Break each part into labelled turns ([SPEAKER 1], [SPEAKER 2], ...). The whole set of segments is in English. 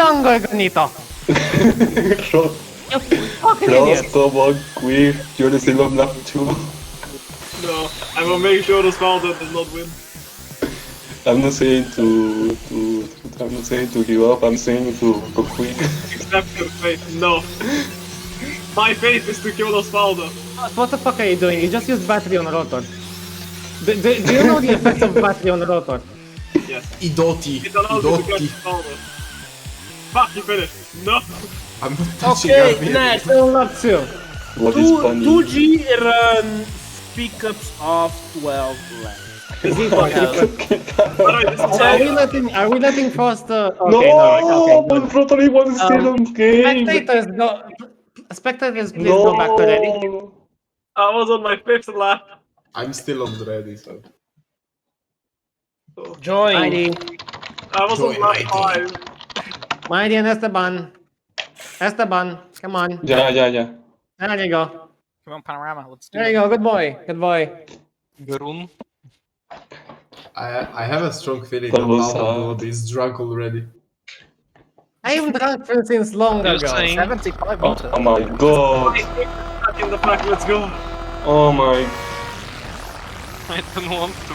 [SPEAKER 1] Dongo el conito.
[SPEAKER 2] Ross,
[SPEAKER 1] You fucking
[SPEAKER 2] Ross,
[SPEAKER 1] idiot.
[SPEAKER 2] come on, quick. You're the silver black too.
[SPEAKER 3] No, I will make sure the Svalda does not win.
[SPEAKER 2] I'm not saying to, to, I'm not saying to give up. I'm saying to go quick.
[SPEAKER 3] Except for faith. No. My faith is to kill Osvaldo.
[SPEAKER 1] What the fuck are you doing? You just used battery on rotor. Do, do, do you know the effect of battery on rotor?
[SPEAKER 3] Yes.
[SPEAKER 4] Idoti.
[SPEAKER 3] It allows me to catch
[SPEAKER 4] Idoti.
[SPEAKER 3] Osvaldo. Fuck, you finished. No.
[SPEAKER 4] I'm not touching
[SPEAKER 5] Okay,
[SPEAKER 4] Gabriel.
[SPEAKER 5] next.
[SPEAKER 1] Still not too.
[SPEAKER 2] What is
[SPEAKER 5] Two,
[SPEAKER 2] funny?
[SPEAKER 5] 2G run pickups of 12 left.
[SPEAKER 3] All right, this is
[SPEAKER 1] Are
[SPEAKER 3] all.
[SPEAKER 1] we letting Are we letting Frost? Uh,
[SPEAKER 2] No,
[SPEAKER 1] okay, no, okay, Um, good.
[SPEAKER 2] but Rotary one is still on game.
[SPEAKER 1] Spectators, go. Spectators, please
[SPEAKER 2] No.
[SPEAKER 1] go back to ready.
[SPEAKER 3] I was on my fifth lap.
[SPEAKER 4] I'm still on ready, so.
[SPEAKER 5] Join.
[SPEAKER 1] Mighty,
[SPEAKER 3] I was on
[SPEAKER 4] Join
[SPEAKER 3] lap
[SPEAKER 4] ID.
[SPEAKER 3] five.
[SPEAKER 1] Mighty and Esteban. Esteban, come on.
[SPEAKER 2] Yeah, yeah, yeah.
[SPEAKER 1] There you go.
[SPEAKER 6] Come on, Panorama, let's do
[SPEAKER 1] There you
[SPEAKER 6] it.
[SPEAKER 1] go. Good boy. Good boy.
[SPEAKER 6] Garun.
[SPEAKER 4] I I have a strong feeling
[SPEAKER 2] That
[SPEAKER 4] that
[SPEAKER 2] was,
[SPEAKER 4] Aldo
[SPEAKER 2] uh,
[SPEAKER 4] Blood is drunk already.
[SPEAKER 1] I haven't drunk since long ago.
[SPEAKER 6] You're saying 75
[SPEAKER 2] Oh,
[SPEAKER 6] water.
[SPEAKER 2] oh my
[SPEAKER 3] I
[SPEAKER 2] god.
[SPEAKER 3] think we're stuck in the back, let's go.
[SPEAKER 2] Oh my.
[SPEAKER 6] I don't want to.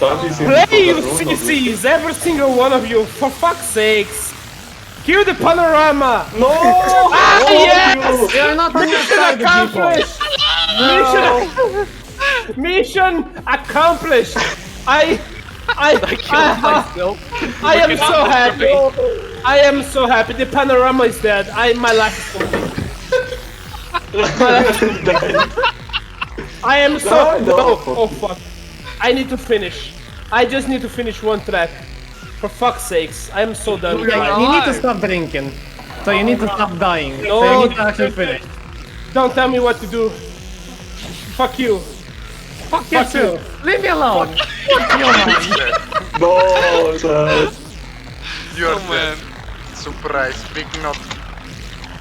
[SPEAKER 2] That is in
[SPEAKER 5] Play
[SPEAKER 2] the
[SPEAKER 5] your
[SPEAKER 2] Rotor Rotor.
[SPEAKER 5] CCs, every single one of you, for fuck's sakes. Hear the panorama.
[SPEAKER 2] No!
[SPEAKER 5] Ah, yes!
[SPEAKER 2] yes!
[SPEAKER 1] You are not on your side, people.
[SPEAKER 5] Mission accomplished! Mission, mission accomplished! I, I, I, I am so happy. I am so happy. The panorama is dead. I, my life is complete. I am so.
[SPEAKER 2] No, no.
[SPEAKER 5] Oh, oh fuck! I need to finish. I just need to finish one track. For fuck's sakes, I am so done.
[SPEAKER 1] Yeah, you need to stop drinking. So you need to stop dying. so you need to actually finish.
[SPEAKER 5] Don't tell me what to do. Fuck you.
[SPEAKER 1] Fuck you too. Leave me alone.
[SPEAKER 2] No, sir.
[SPEAKER 7] You're dead. Surprise, big not.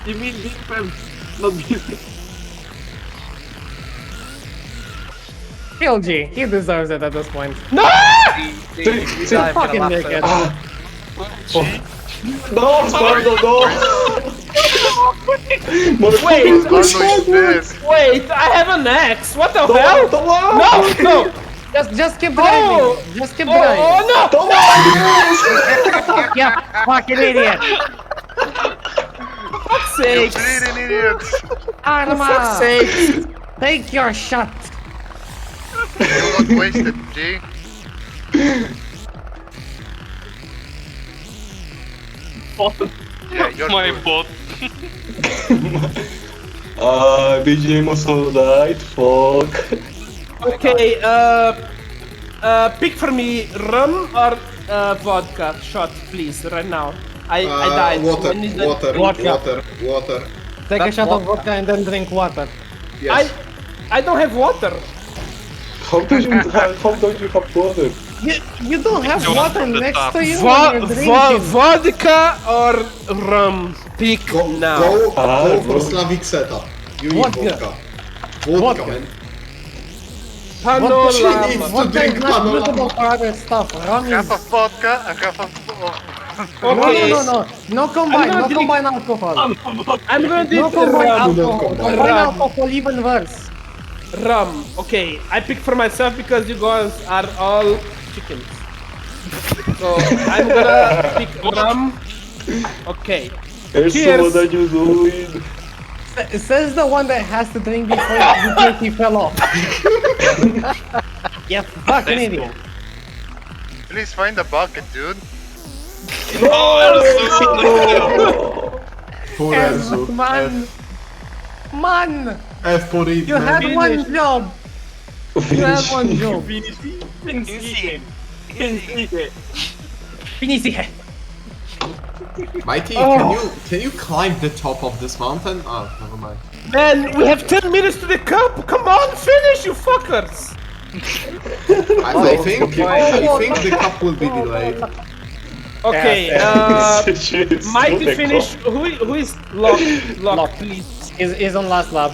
[SPEAKER 3] You mean deep pants, not music.
[SPEAKER 1] Kill G. He deserves it at this point. Fucking dickhead.
[SPEAKER 2] No, Spardo, no! Motherfucker,
[SPEAKER 5] Wait,
[SPEAKER 7] Arno
[SPEAKER 2] go
[SPEAKER 7] is dead.
[SPEAKER 1] Eh,
[SPEAKER 5] Wait, I have an axe. What the hell?
[SPEAKER 2] No, come on!
[SPEAKER 5] No, no.
[SPEAKER 1] Just, just keep driving.
[SPEAKER 5] Oh.
[SPEAKER 1] Just keep
[SPEAKER 5] Oh,
[SPEAKER 1] driving.
[SPEAKER 5] oh no!
[SPEAKER 2] Come on!
[SPEAKER 1] Yeah, fucking idiot.
[SPEAKER 5] Fuck's sakes.
[SPEAKER 7] Bleeding idiot!
[SPEAKER 5] Fuck's
[SPEAKER 1] Arma,
[SPEAKER 5] sakes.
[SPEAKER 1] take your shot.
[SPEAKER 7] You got wasted, G. Yeah, you're
[SPEAKER 6] My
[SPEAKER 7] good.
[SPEAKER 6] bot.
[SPEAKER 2] Uh, BGM also died, fuck.
[SPEAKER 5] Okay, uh, uh, pick for me rum or uh, vodka shot, please, right now. I, I
[SPEAKER 4] Uh,
[SPEAKER 5] died.
[SPEAKER 4] Water,
[SPEAKER 5] I need a-
[SPEAKER 4] water,
[SPEAKER 1] Vodka.
[SPEAKER 4] water, water.
[SPEAKER 1] Take a
[SPEAKER 6] That's
[SPEAKER 1] shot of vodka and then drink water.
[SPEAKER 5] I,
[SPEAKER 4] Yes.
[SPEAKER 5] I don't have water.
[SPEAKER 2] How do you have, how don't you have water?
[SPEAKER 1] You, you don't have
[SPEAKER 6] Don't
[SPEAKER 1] water
[SPEAKER 6] from the
[SPEAKER 1] next
[SPEAKER 6] top.
[SPEAKER 1] to you
[SPEAKER 5] Vo-
[SPEAKER 1] when you're
[SPEAKER 5] vo-
[SPEAKER 1] drinking.
[SPEAKER 5] vodka or rum? Pick
[SPEAKER 4] Go,
[SPEAKER 5] now.
[SPEAKER 4] go,
[SPEAKER 2] Ah,
[SPEAKER 4] go for
[SPEAKER 2] bro.
[SPEAKER 4] Slavic setup. You need
[SPEAKER 1] Vodka.
[SPEAKER 4] vodka. Vodka,
[SPEAKER 1] Vodka.
[SPEAKER 4] man.
[SPEAKER 5] Panorama.
[SPEAKER 4] She needs to
[SPEAKER 1] Vodka
[SPEAKER 4] drink
[SPEAKER 1] is not
[SPEAKER 4] panorama.
[SPEAKER 1] suitable for other stuff. Rum is...
[SPEAKER 7] Half of vodka, and half of. Oh,
[SPEAKER 1] No,
[SPEAKER 5] Okay.
[SPEAKER 1] no, no, no. No combine,
[SPEAKER 5] not
[SPEAKER 1] no
[SPEAKER 5] drinking-
[SPEAKER 1] combine alcohol.
[SPEAKER 5] I'm gonna do
[SPEAKER 1] No combine
[SPEAKER 5] rum.
[SPEAKER 4] no
[SPEAKER 1] alcohol.
[SPEAKER 4] combine.
[SPEAKER 1] Combine
[SPEAKER 5] Rum.
[SPEAKER 1] alcohol even worse.
[SPEAKER 5] rum. Okay, I pick for myself because you guys are all chickens. So I'm gonna pick rum. Okay.
[SPEAKER 2] Elsa,
[SPEAKER 5] Cheers.
[SPEAKER 2] what are you
[SPEAKER 5] é
[SPEAKER 2] doing?
[SPEAKER 1] S- Says the one that has to drink before, before he fell off. yeah, fucking idiot.
[SPEAKER 7] please find a bucket, dude.
[SPEAKER 4] Poor Enzo.
[SPEAKER 1] Man,
[SPEAKER 4] F,
[SPEAKER 1] man,
[SPEAKER 4] F for it,
[SPEAKER 1] you
[SPEAKER 4] man.
[SPEAKER 1] had one job. You had one job. Finish it.
[SPEAKER 4] Mikey,
[SPEAKER 1] Oh.
[SPEAKER 4] can you can you climb the top of this mountain? Oh, never mind.
[SPEAKER 5] Man, we have 10 minutes to the cup! Come on, finish, you fuckers!
[SPEAKER 4] I, I
[SPEAKER 1] Oh,
[SPEAKER 4] think I think the cup will be delayed.
[SPEAKER 5] Okay, uh,
[SPEAKER 2] Shit,
[SPEAKER 5] Mighty
[SPEAKER 2] stupid
[SPEAKER 5] finish. Who, who is locked? Locked,
[SPEAKER 1] Lock.
[SPEAKER 5] please.
[SPEAKER 1] Is is on last lap.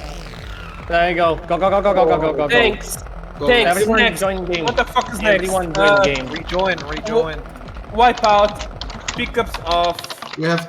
[SPEAKER 1] There you go. Go go go go go go go go. go.
[SPEAKER 5] Thanks. Thanks.
[SPEAKER 1] Everyone
[SPEAKER 5] next.
[SPEAKER 1] join game.
[SPEAKER 5] What the fuck is next?
[SPEAKER 1] Everyone
[SPEAKER 5] Uh,
[SPEAKER 1] join game.
[SPEAKER 6] Rejoin, rejoin.
[SPEAKER 5] Wipe out. Pickups of
[SPEAKER 4] We have